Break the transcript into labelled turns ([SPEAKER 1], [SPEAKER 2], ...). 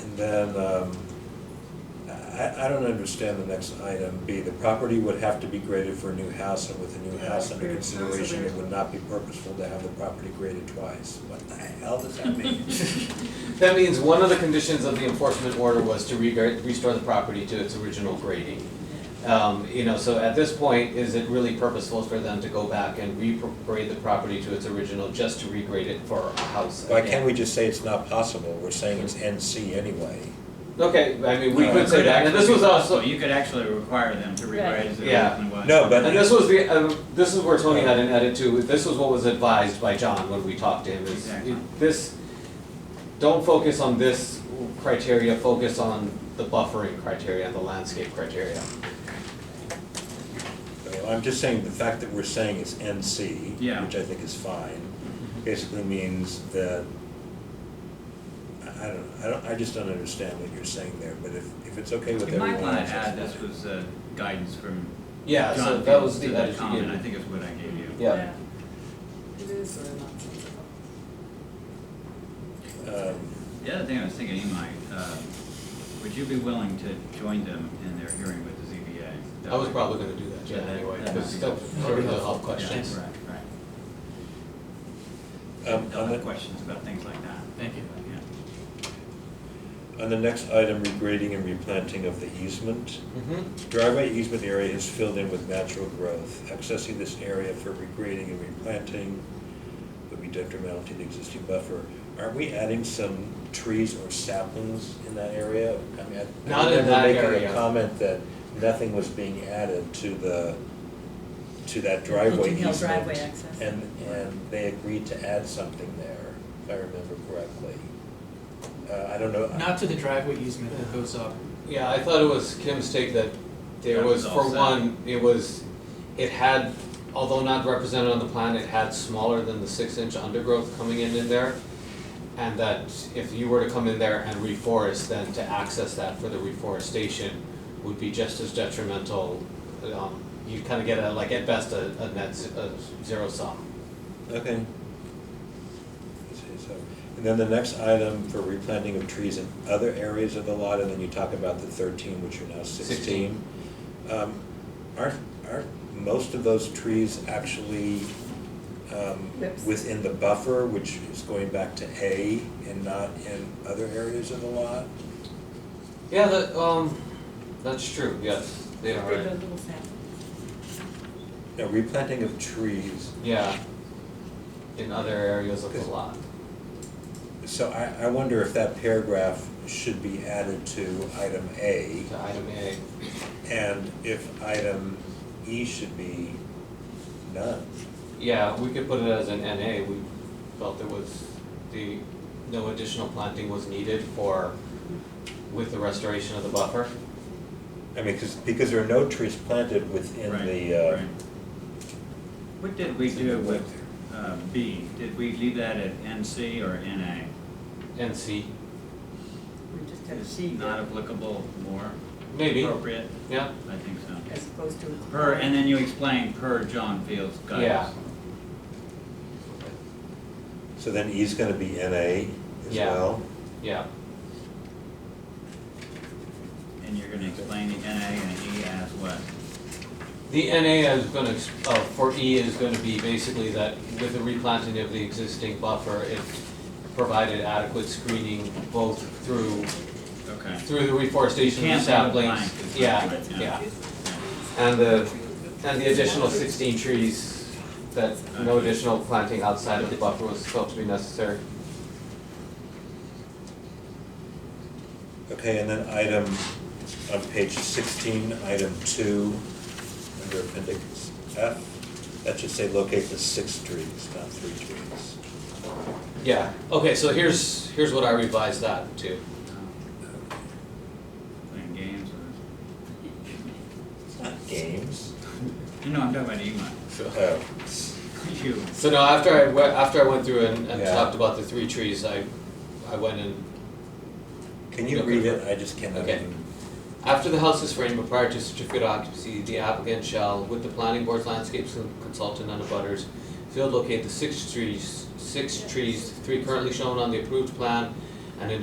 [SPEAKER 1] And then, um, I, I don't understand the next item, B, the property would have to be graded for a new house, and with a new
[SPEAKER 2] Yeah,
[SPEAKER 1] house under
[SPEAKER 2] graded house
[SPEAKER 1] consideration, it
[SPEAKER 2] already.
[SPEAKER 1] would not be purposeful to have the property graded twice. What the hell does that mean?
[SPEAKER 3] That means one of the conditions of the enforcement order was to regar- restore the property to its original grading. Um, you know, so at this point, is it really purposeful for them to go back and regrade the property to its original just to regrade it for a house?
[SPEAKER 1] Why can't
[SPEAKER 3] again?
[SPEAKER 1] we just say it's not possible, we're saying it's NC anyway?
[SPEAKER 3] Okay, I mean, we
[SPEAKER 1] No,
[SPEAKER 3] could say that, and this was also,
[SPEAKER 4] You could actually require them to rewrite it.
[SPEAKER 3] Yeah.
[SPEAKER 1] No, but-
[SPEAKER 3] And this was the, uh, this is where Tony had an edit too, this was what was advised by John when we talked to him, is
[SPEAKER 4] Exactly.
[SPEAKER 3] this, don't focus on this criteria, focus on the buffering criteria and the landscape criteria.
[SPEAKER 1] So I'm just saying, the fact that we're saying it's NC,
[SPEAKER 4] Yeah. Mm-hmm.
[SPEAKER 1] which I think is fine, basically means that, I I don't, I don't, I just don't understand what you're saying there, but if, if it's okay with
[SPEAKER 4] You might
[SPEAKER 1] everyone
[SPEAKER 4] want to
[SPEAKER 1] else.
[SPEAKER 4] add,
[SPEAKER 1] that's
[SPEAKER 4] this
[SPEAKER 1] fine.
[SPEAKER 4] was uh, guidance from
[SPEAKER 3] Yeah, so
[SPEAKER 4] John
[SPEAKER 3] that was
[SPEAKER 4] Fields
[SPEAKER 3] the
[SPEAKER 4] to
[SPEAKER 3] edit
[SPEAKER 4] the
[SPEAKER 3] you
[SPEAKER 4] comment,
[SPEAKER 3] gave.
[SPEAKER 4] I think is what I gave you.
[SPEAKER 3] Yeah.
[SPEAKER 2] It is uh, sort of nonsensical.
[SPEAKER 1] Um,
[SPEAKER 4] The other thing I was thinking, Imai, uh, would you be willing to join them in their hearing with the ZBA?
[SPEAKER 3] I was probably gonna do that, Jen,
[SPEAKER 4] Yeah, that-
[SPEAKER 3] anyway,
[SPEAKER 4] that
[SPEAKER 3] because
[SPEAKER 4] might be
[SPEAKER 3] that's sort of the hub questions.
[SPEAKER 4] Yeah, right, right.
[SPEAKER 1] Um,
[SPEAKER 4] They'll
[SPEAKER 1] On
[SPEAKER 4] have
[SPEAKER 1] the,
[SPEAKER 4] questions about things like that. Thank you.
[SPEAKER 1] on the next item, regrading and replanting of the easement.
[SPEAKER 3] Mhm.
[SPEAKER 1] Driveway easement area is filled in with natural growth. Accessing this area for regrading and replanting would be detrimental to the existing buffer. Aren't we adding some trees or saplings in that area? I mean, I-
[SPEAKER 3] Not in
[SPEAKER 1] I
[SPEAKER 3] that
[SPEAKER 1] remember making
[SPEAKER 3] area.
[SPEAKER 1] a comment that nothing was being added to the, to that driveway
[SPEAKER 5] Hilton Hill
[SPEAKER 1] easement.
[SPEAKER 5] driveway access.
[SPEAKER 1] And, and they agreed to add something there, if I remember correctly. Uh, I don't know.
[SPEAKER 6] Not to the driveway easement that goes up.
[SPEAKER 3] Yeah, I thought it was Kim's take that there
[SPEAKER 4] That
[SPEAKER 3] was,
[SPEAKER 4] was
[SPEAKER 3] for
[SPEAKER 4] offset.
[SPEAKER 3] one, it was, it had, although not represented on the plan, it had smaller than the six inch undergrowth coming in in there. And that if you were to come in there and reforest, then to access that for the reforestation would be just as detrimental. Um, you'd kind of get a, like at best, a, a net, z- a zero sum.
[SPEAKER 1] Okay. I see, so- And then the next item for replanting of trees in other areas of the lot, and then you talk about the thirteen, which are now sixteen. Um, Aren't, aren't most of those trees actually um,
[SPEAKER 2] Whips.
[SPEAKER 1] within the buffer, which is going back to A and not in other areas of the lot?
[SPEAKER 3] Yeah, that, um, that's true, yes, they are,
[SPEAKER 5] They
[SPEAKER 3] right.
[SPEAKER 5] build little saplings.
[SPEAKER 1] No, replanting of trees,
[SPEAKER 3] yeah, in other areas of the lot.
[SPEAKER 1] so I, I wonder if that paragraph should be added to item A.
[SPEAKER 3] To item A.
[SPEAKER 1] And if item E should be none.
[SPEAKER 3] Yeah, we could put it as an NA, we felt it was the, no additional planting was needed for, with the restoration of the buffer.
[SPEAKER 1] I mean, because, because there are no trees planted within
[SPEAKER 4] Right,
[SPEAKER 1] the, uh,
[SPEAKER 4] right. What did we do with uh, B? Did we leave that at NC or NA?
[SPEAKER 3] NC,
[SPEAKER 2] We just have
[SPEAKER 4] Is
[SPEAKER 2] she
[SPEAKER 4] not applicable more
[SPEAKER 3] maybe,
[SPEAKER 4] appropriate?
[SPEAKER 3] yeah,
[SPEAKER 4] I think so.
[SPEAKER 2] as opposed to.
[SPEAKER 4] Per, and then you explain per John Fields
[SPEAKER 3] Yeah.
[SPEAKER 4] guidance.
[SPEAKER 1] so then E's gonna be NA as
[SPEAKER 3] Yeah.
[SPEAKER 1] well.
[SPEAKER 3] yeah,
[SPEAKER 4] And you're gonna explain the NA and E as what?
[SPEAKER 3] The NA is gonna, ex- uh, for E is gonna be basically that with the replanting of the existing buffer, it provided adequate screening both through,
[SPEAKER 4] Okay.
[SPEAKER 3] through the reforestation of the
[SPEAKER 4] Can't have a
[SPEAKER 3] saplings.
[SPEAKER 4] blank, is what
[SPEAKER 3] Yeah,
[SPEAKER 4] it-
[SPEAKER 3] yeah, and the, And the additional sixteen trees, that no additional planting outside of the buffer was felt to be necessary.
[SPEAKER 1] Okay, and then item, on page sixteen, item two, under appendix F, that should say locate the six trees, not three trees.
[SPEAKER 3] Yeah, okay, so here's, here's what I revised that to.
[SPEAKER 4] Playing games or,
[SPEAKER 1] It's not games.
[SPEAKER 4] you know, I'm talking about email.
[SPEAKER 1] Oh,
[SPEAKER 4] You,
[SPEAKER 3] So now, after I went, after I went through and, and
[SPEAKER 1] Yeah.
[SPEAKER 3] talked about the three trees, I, I went and
[SPEAKER 1] can you
[SPEAKER 3] Okay.
[SPEAKER 1] read it? I just cannot.
[SPEAKER 3] Okay.
[SPEAKER 1] even-
[SPEAKER 3] After the house is framed, but prior to certificate of occupancy, the applicant shall, with the planning board's landscapes consultant and the butters, field locate the six trees, six trees, three currently shown on the approved plan, and in